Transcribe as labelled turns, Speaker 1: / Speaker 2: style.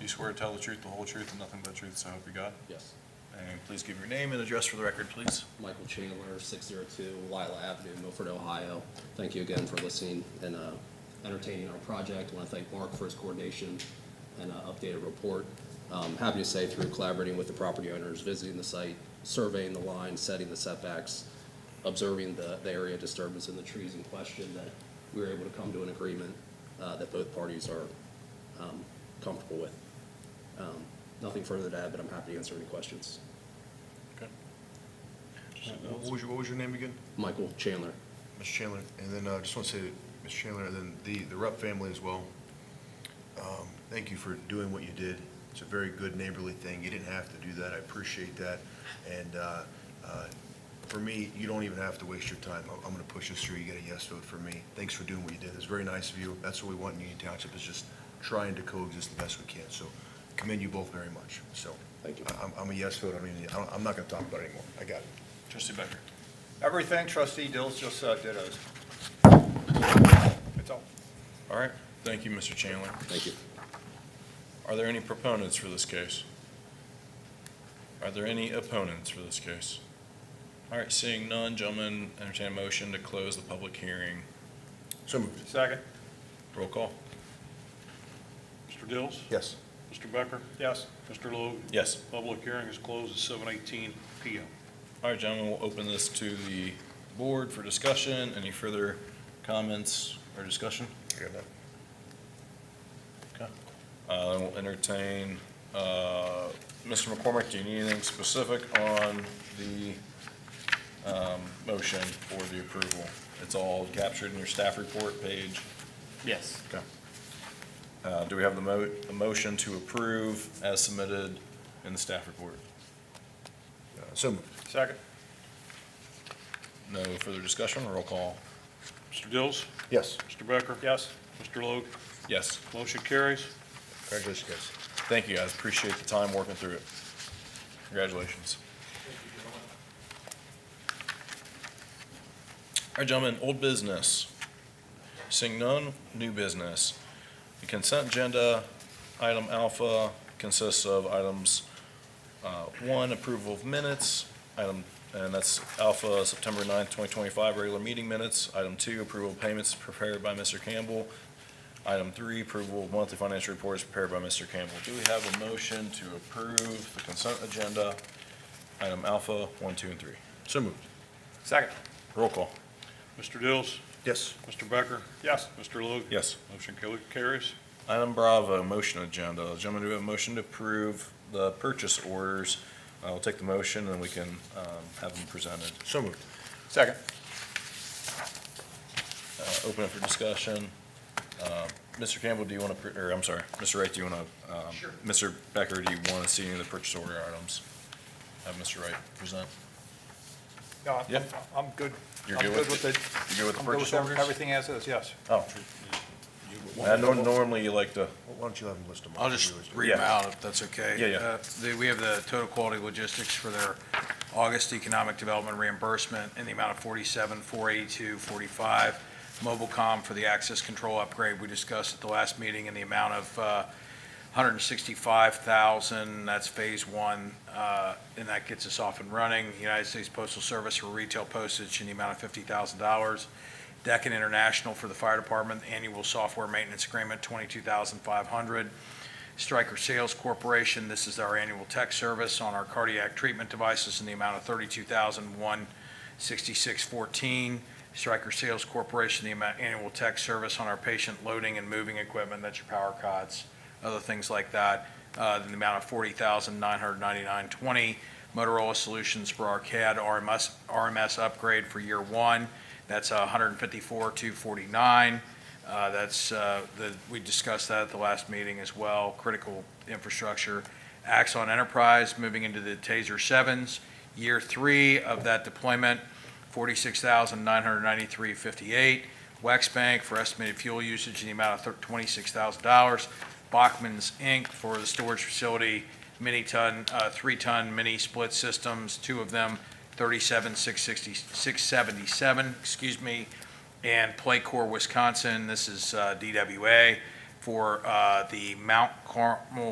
Speaker 1: you swear to tell the truth, the whole truth, and nothing but the truth, so help you God?
Speaker 2: Yes.
Speaker 1: And please give your name and address for the record, please.
Speaker 2: Michael Chandler, 602 Lila Avenue, Milford, Ohio. Thank you again for listening and uh, entertaining our project. I want to thank Mark for his coordination and uh, updated report. Um, Happy to say through collaborating with the property owners, visiting the site, surveying the line, setting the setbacks, observing the the area disturbance and the trees in question, that we were able to come to an agreement uh, that both parties are um, comfortable with. Um, Nothing further to add, but I'm happy to answer any questions.
Speaker 1: Okay.
Speaker 3: What was your, what was your name again?
Speaker 2: Michael Chandler.
Speaker 3: Mr. Chandler, and then I just want to say, that, Mr. Chandler, and then the, the Rupp family as well, um, thank you for doing what you did. It's a very good neighborly thing. You didn't have to do that. I appreciate that. And uh, uh, for me, you don't even have to waste your time. I'm- I'm going to push this through. You get a yes vote for me. Thanks for doing what you did. It's very nice of you. That's what we want in Union Township, is just trying to coexist the best we can. So commend you both very much. So
Speaker 2: Thank you.
Speaker 3: I- I'm, I'm a yes vote. I mean, I don't- I'm not going to talk about it anymore. I got it.
Speaker 1: Trustee Becker.
Speaker 4: Everything trustee Dills just said dittos. That's all.
Speaker 1: All right, thank you, Mr. Chandler.
Speaker 2: Thank you.
Speaker 1: Are there any proponents for this case? Are there any opponents for this case? All right, seeing none, gentlemen, entertain a motion to close the public hearing.
Speaker 3: So moved.
Speaker 4: Second.
Speaker 1: Roll call.
Speaker 5: Mr. Dills?
Speaker 3: Yes.
Speaker 5: Mr. Becker?
Speaker 4: Yes.
Speaker 5: Mr. Logue?
Speaker 1: Yes.
Speaker 5: Public hearing is closed at seven eighteen PM.
Speaker 1: All right, gentlemen, we'll open this to the board for discussion. Any further comments or discussion?
Speaker 3: I got that.
Speaker 1: Uh, then we'll entertain, uh, Mr. McCormick, do you need anything specific on the, um, motion for the approval? It's all captured in your staff report page.
Speaker 6: Yes.
Speaker 1: Okay. Uh, do we have the mo- a motion to approve as submitted in the staff report?
Speaker 3: Uh, So moved.
Speaker 4: Second.
Speaker 1: No further discussion, roll call.
Speaker 5: Mr. Dills?
Speaker 3: Yes.
Speaker 5: Mr. Becker?
Speaker 4: Yes.
Speaker 5: Mr. Logue?
Speaker 1: Yes,
Speaker 5: Motion carries.
Speaker 3: Congratulations, guys.
Speaker 1: thank you guys, appreciate the time working through it. Congratulations. All right, gentlemen, old business. Seeing none, new business. The consent agenda, item alpha consists of items, uh, one, approval of minutes, item, and that's alpha, September 9th, twenty twenty-five, regular meeting minutes. Item two, approval of payments prepared by Mr. Campbell. Item three, approval of monthly financial reports prepared by Mr. Campbell. Do we have a motion to approve the consent agenda, item alpha, one, two, and three?
Speaker 3: So moved.
Speaker 4: Second.
Speaker 1: Roll call.
Speaker 5: Mr. Dills?
Speaker 3: Yes.
Speaker 5: Mr. Becker?
Speaker 4: Yes.
Speaker 5: Mr. Logue?
Speaker 1: Yes.
Speaker 5: Motion ca- carries.
Speaker 1: Item Bravo, motion agenda. Gentlemen, do we have a motion to approve the purchase orders? I'll take the motion and we can um, have them presented.
Speaker 3: So moved.
Speaker 4: Second.
Speaker 1: Uh, Open it for discussion. Uh, Mr. Campbell, do you want to, or I'm sorry, Mr. Wright, do you want to? Sure. Mr. Becker, do you want to see any of the purchase order items? Have Mr. Wright present.
Speaker 4: No, I'm-
Speaker 1: Yeah.
Speaker 4: I'm I'm good.
Speaker 1: You're
Speaker 4: I'm
Speaker 1: good with
Speaker 4: it.
Speaker 1: You good with the
Speaker 4: I'm good
Speaker 1: purchase
Speaker 4: with
Speaker 1: orders?
Speaker 4: everything as is, yes.
Speaker 1: Oh. I know normally you like to,
Speaker 3: Why don't you have them list them? off?
Speaker 7: I'll just read them out, if that's okay.
Speaker 1: Yeah, yeah.
Speaker 7: Uh, the- We have the total quality logistics for their August economic development reimbursement in the amount of 47, 482, 45. Mobilecom for the access control upgrade we discussed at the last meeting in the amount of uh, 165,000, that's phase one, uh, and that gets us off and running. United States Postal Service for retail postage in the amount of $50,000. Deccan International for the fire department, annual software maintenance agreement, 22,500. Stryker Sales Corporation. This is our annual tech service on our cardiac treatment devices in the amount of thirty-two thousand, one sixty-six fourteen. Stryker Sales Corporation, the amount, annual tech service on our patient loading and moving equipment, that's your power cots, other things like that, uh, in the amount of forty thousand, nine hundred ninety-nine, twenty. Motorola Solutions for our CAD RMS, RMS upgrade for year one, that's a hundred and fifty-four, two forty-nine. Uh, That's, uh, the- we discussed that at the last meeting as well, critical infrastructure. Axon Enterprise, moving into the TASER 7s, year three of that deployment, 46993 Wax Bank for estimated fuel usage in the amount of thir- $26,000. Bachman's Inc. for the storage facility, mini-ton, uh, three-ton mini-split systems, two of them, 37,660 677, excuse me and Playcore Wisconsin. This is uh, DWA for uh, the Mount Carmel